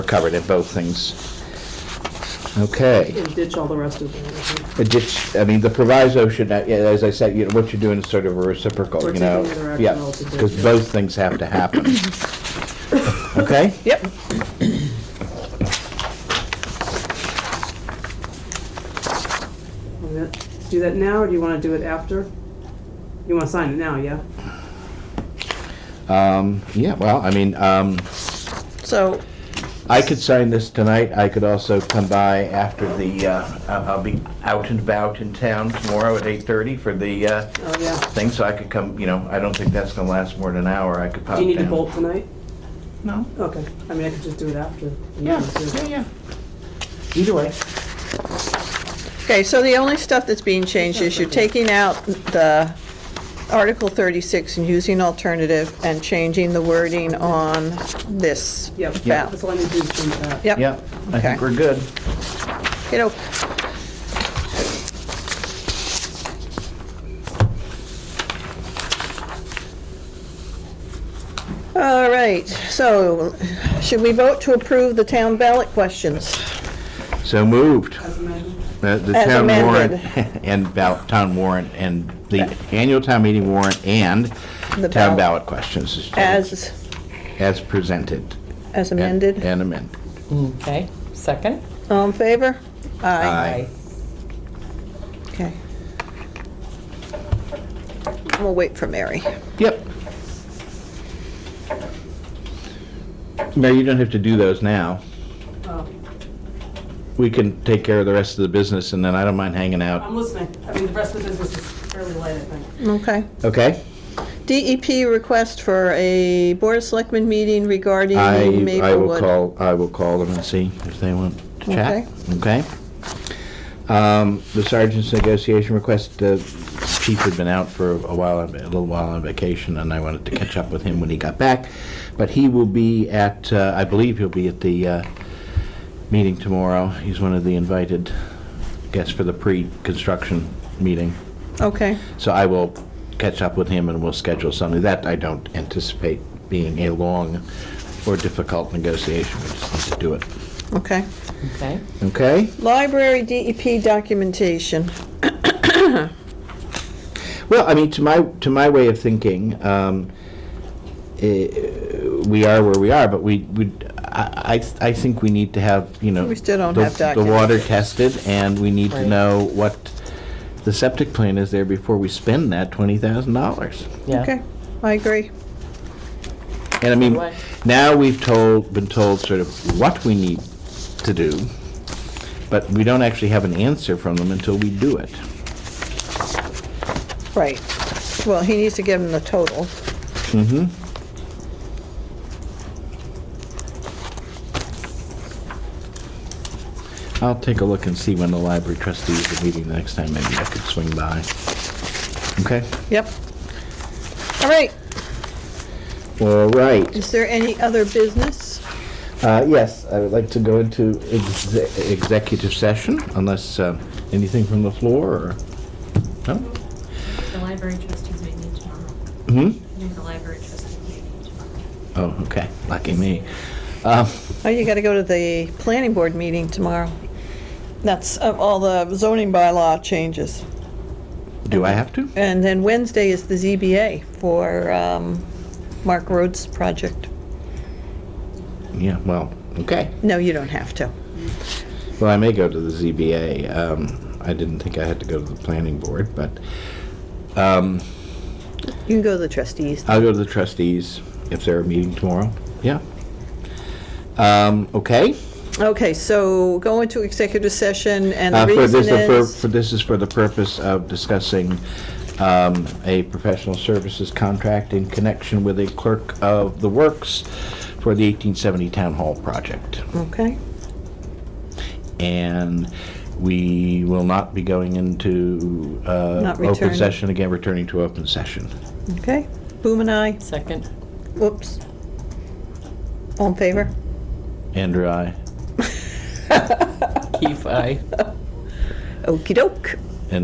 We're covered in both things. Okay. and ditch all the rest of them. It just, I mean, the proviso should not, yeah, as I said, you know, what you're doing is sort of a reciprocal, We're you know? taking another action altogether. because both things have to happen. Okay? Yep. I'm gonna Do that now, or do you wanna do it after? You wanna sign it now, yeah? Um, yeah, well, I mean, um, So, I could sign this tonight. I could also come by after the, uh, I- I'll be out and about in town tomorrow at 8:30 for the, uh, Oh, yeah. thing, so I could come, you know, I don't think that's gonna last more than an hour. I could pop Do down. you need to bolt tonight? No. Okay, I mean, I could just do it after. Yeah, yeah, yeah. Either way. okay, so the only stuff that's being changed is you're taking out the Article 36 and using alternative and changing the wording on this. Yep, Yeah. that's all I need to do is print that. Yep. Yeah, I Okay. think we're good. You know, All right, so should we vote to approve the town ballot questions? So moved. As amended. The Uh, the As town warrant amended. and ballot, town warrant and the annual town meeting warrant and The town ballot ballot. questions. is total- As, As presented. as and- amended? And amended. Okay, second? All in favor? Aye. Okay. We'll wait for Mary. Yep. Mary, you don't have to do those now. Oh, We can take care of the rest of the business and then I don't mind hanging out. I'm listening. I mean, the rest of the business is fairly light, I think. Okay. Okay? DEP request for a Board of Selectmen meeting regarding I, Maplewood. I will call, I will call them and see if they want to chat, okay? Um, The sergeant's negotiation request, uh, chief had been out for a while, a little while on vacation, and I wanted to catch up with him when he got back, but he will be at, uh, I believe he'll be at the uh, meeting tomorrow. He's one of the invited guests for the pre-construction meeting. Okay, So I will catch up with him and we'll schedule something. That I don't anticipate being a long or difficult negotiation. We just need to do it. okay. Okay. Okay? Library DEP documentation. Well, I mean, to my, to my way of thinking, um, eh, we are where we are, but we, we, I, I I think we need to have, you know. We still don't the- have The water documents. tested and we need to Right. know what the septic plan is there before we spend that twenty thousand dollars. Yeah. Okay, I agree. And I mean, Right. now we've told, been told sort of what we need to do, but we don't actually have an answer from them until we do it. Right. Well, he needs to give him the total. Mm-hmm. I'll take a look and see when the library trustees are meeting the next time. Maybe I could swing by. Okay? Yep. All right, All right. is there any other business? Uh, Yes, I would like to go into exe- executive session unless uh, anything from the floor or, no? The library trustees may meet tomorrow. Hmm? I think the library trustees may meet tomorrow. Oh, okay, lucky me. Um, Oh, you gotta go to the planning board meeting tomorrow. That's of all the zoning bylaw changes. Do I have to? And then Wednesday is the ZBA for um, Mark Rhodes' project. Yeah, well, okay. No, you don't have to. Well, I may go to the ZBA. Um, I didn't think I had to go to the planning board, but um, You can go to the trustees. I'll go to the trustees if they're meeting tomorrow. Yeah. Um, okay. Okay, so go into executive session, and Uh, the for this, reason for, is, for this is for the purpose of discussing um, a professional services contract in connection with a clerk of the works for the 1870 town hall project. okay, and we will not be going into uh, Not open returning. session again, returning to open session. okay. Boom and I, Second? whoops. All in favor? Andrew, I. Keith, aye. Okey doke.